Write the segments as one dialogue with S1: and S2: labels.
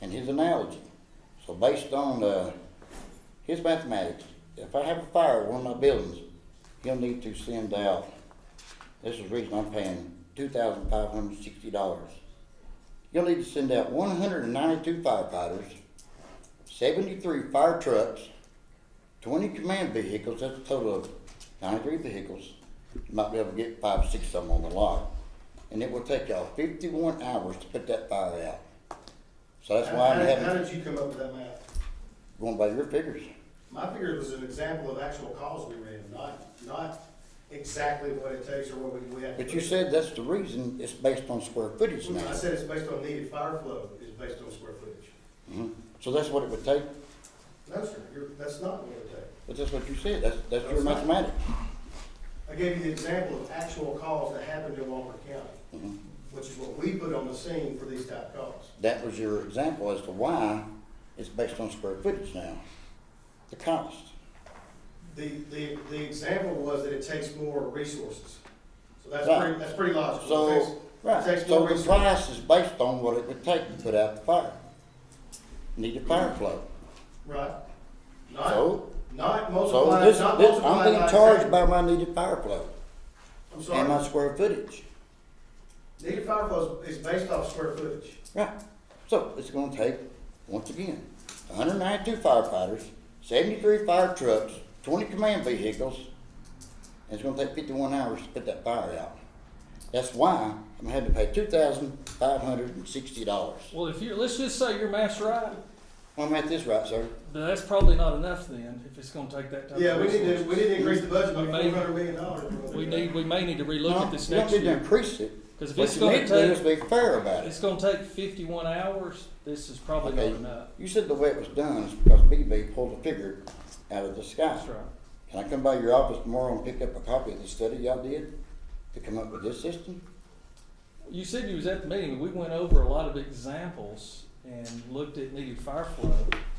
S1: and his analogy. So based on uh, his mathematics, if I have a fire at one of my buildings, he'll need to send out, this is the reason I'm paying two thousand five hundred sixty dollars. You'll need to send out one hundred and ninety-two firefighters, seventy-three fire trucks, twenty command vehicles, that's a total of ninety-three vehicles. You might be able to get five, six of them on the lot. And it will take y'all fifty-one hours to put that fire out. So that's why I'm
S2: How- how- How
S1: having,
S2: did you come up with that math?
S1: going by your figures.
S2: My figure was an example of actual calls we ran, not, not exactly what it takes or what we, we have. to
S1: But you
S2: put.
S1: said that's the reason it's based on square footage now.
S2: I said it's based on needed fire flow, is based on square footage.
S1: Mhm. So that's what it would take,
S2: No, sir, you're, that's not what it takes.
S1: but that's what you said, that's, that's your
S2: That's not-
S1: mathematics.
S2: I gave you the example of actual calls that happened in Walker
S1: Mm-hmm.
S2: County, which is what we put on the scene for these type calls.
S1: That was your example as to why it's based on square footage now, the cost.
S2: The, the, the example was that it takes more resources. So that's
S1: Right.
S2: pretty, that's pretty logical. It takes-
S1: So, right,
S2: It takes
S1: so
S2: more
S1: the
S2: resources.
S1: price is based on what it would take to put out the fire. Need a fire flow.
S2: Right. Not,
S1: So-
S2: not
S1: So
S2: multiplied,
S1: this,
S2: not
S1: this, I'm
S2: multiplied
S1: being
S2: by
S1: charged
S2: ten.
S1: by my needed fire flow
S2: I'm
S1: and my
S2: sorry.
S1: square footage.
S2: Needed fire flow is is based off square footage.
S1: Right. So it's gonna take, once again, hundred ninety-two firefighters, seventy-three fire trucks, twenty command vehicles, and it's gonna take fifty-one hours to put that fire out. That's why I'm having to pay two thousand five hundred and sixty dollars.
S3: Well, if you, let's just say your math's right,
S1: I'm at this right, sir.
S3: but that's probably not enough then, if it's gonna take that time.
S2: Yeah, we need to, we need to increase the budget by
S3: We may-
S2: four hundred million dollars.
S3: We need, we may need to relook
S1: No,
S3: at this
S1: you don't
S3: next
S1: need to
S3: year,
S1: Increase it.
S3: because if
S1: What
S3: it's
S1: you
S3: gonna
S1: need to do is
S3: take,
S1: be fair about it.
S3: it's gonna take fifty-one hours, this is probably
S1: Okay.
S3: not enough.
S1: You said the way it was done is because BB pulled a figure out of the sky.
S3: That's right.
S1: Can I come by your office tomorrow and pick up a copy of the study y'all did to come up with this system?
S3: You said you was at the meeting, we went over a lot of examples and looked at needed fire flow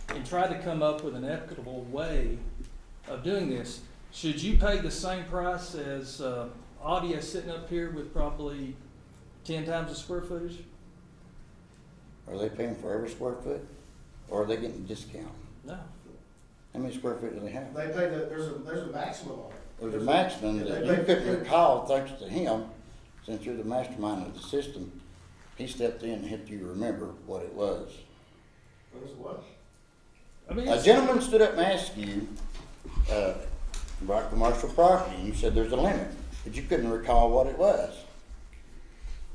S3: and tried to come up with an equitable way of doing this. Should you pay the same price as, uh, Audia sitting up here with probably ten times the square footage?
S1: Are they paying for every square foot? Or are they getting a discount?
S3: No.
S1: How many square foot do they have?
S2: They pay the, there's a, there's a maximum on it.
S1: There's a maximum that you couldn't recall thanks to him, since you're the mastermind of the system. He stepped in and helped you remember what it was.
S2: There's what?
S3: I mean,
S1: A
S3: it's-
S1: gentleman stood up and asked you, uh, about commercial property, and you said there's a limit, but you couldn't recall what it was.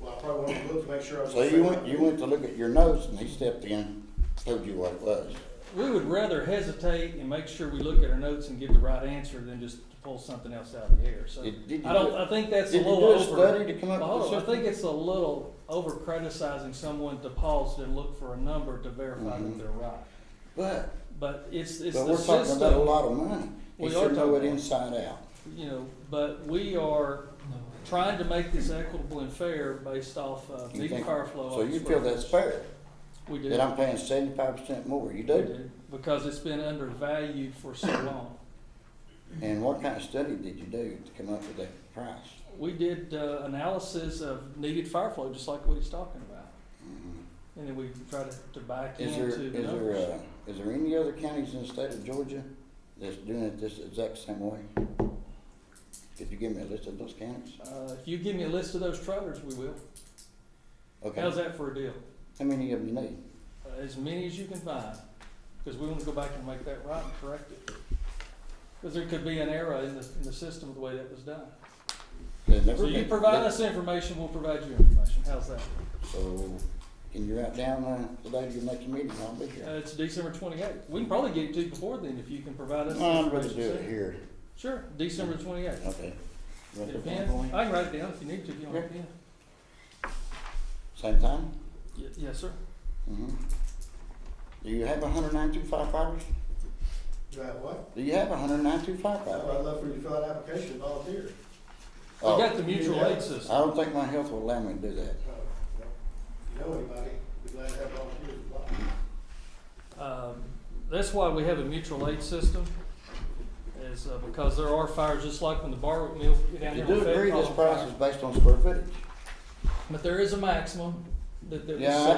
S2: Well, I probably want to look to make sure I was.
S1: So you went, you went to look at your notes, and he stepped in, told you what it was.
S3: we would rather hesitate and make sure we look at our notes and give the right answer than just to pull something else out of the air. So
S1: Did- did you
S3: I don't,
S1: do-
S3: I think that's a
S1: did you
S3: little
S1: do a
S3: over.
S1: study to come up with
S3: Hold
S1: this
S3: on, I
S1: system?
S3: think it's a little over criticizing someone to pause to look for a number to verify
S1: Mhm.
S3: that they're right.
S1: But,
S3: But it's, it's
S1: but
S3: the
S1: we're talking about a
S3: system,
S1: lot of money. He
S3: We
S1: should
S3: are
S1: know it
S3: talking-
S1: inside out.
S3: you know, but we are trying to make this equitable and fair based off uh
S1: You
S3: meeting
S1: think-
S3: fire flow.
S1: So
S3: off
S1: you
S3: the
S1: feel
S3: square
S1: that's
S3: footage.
S1: fair,
S3: We do.
S1: that I'm paying seventy-five percent more, you
S3: We
S1: do?
S3: do, because it's been undervalued for so long.
S1: And what kind of study did you do to come up with that price?
S3: We did uh, analysis of needed fire flow, just like what he's talking about. And then we tried to- to back
S1: Mm-hmm. Is there,
S3: into
S1: is
S3: the
S1: there,
S3: numbers.
S1: uh, is there any other counties in the state of Georgia that's doing it this exact same way? Could you give me a list of those counties?
S3: Uh, If you give me a list of those trailers, we will.
S1: Okay,
S3: How's
S1: how
S3: that for a deal?
S1: many of them you need?
S3: Uh, As many as you can find, because we want to go back and make that right and correct it. Because there could be an error in the, in the system of the way that was done.
S1: They've never
S3: So you
S1: been-
S3: provide
S1: they-
S3: us information, we'll provide you information. How's that?
S1: So, can you write down, uh, the date of your next meeting, I'll be
S3: Uh,
S1: here.
S3: It's December twenty-eighth. We can probably get it to you before then if you can provide us.
S1: No, I'm ready
S3: information
S1: to do it
S3: soon.
S1: here,
S3: Sure, December twenty-eighth.
S1: okay. Ready
S3: Get a
S1: for
S3: pen?
S1: one point?
S3: I can write it down if you need to, if you want a pen.
S1: Same time?
S3: Y- Yes, sir.
S1: Mm-hmm. Do you have hundred ninety-two firefighters?
S2: You have what?
S1: Do you have hundred ninety-two
S2: I'd
S1: firefighters?
S2: love for you to fill out an application and volunteer.
S3: We
S1: Oh,
S3: got the mutual
S2: Yeah.
S3: aid
S1: I
S3: system.
S1: don't think my health will allow me to do that.
S2: Uh, If you know anybody, we'd be glad to have volunteers.
S3: Um, That's why we have a mutual aid system, is uh, because there are fires, just like when the bar mill. down
S1: You
S3: there on
S1: do agree
S3: Fayette
S1: this
S3: Hall
S1: price
S3: fire.
S1: is based on square footage?
S3: But there is a maximum that, that was
S1: Yeah, I
S3: set.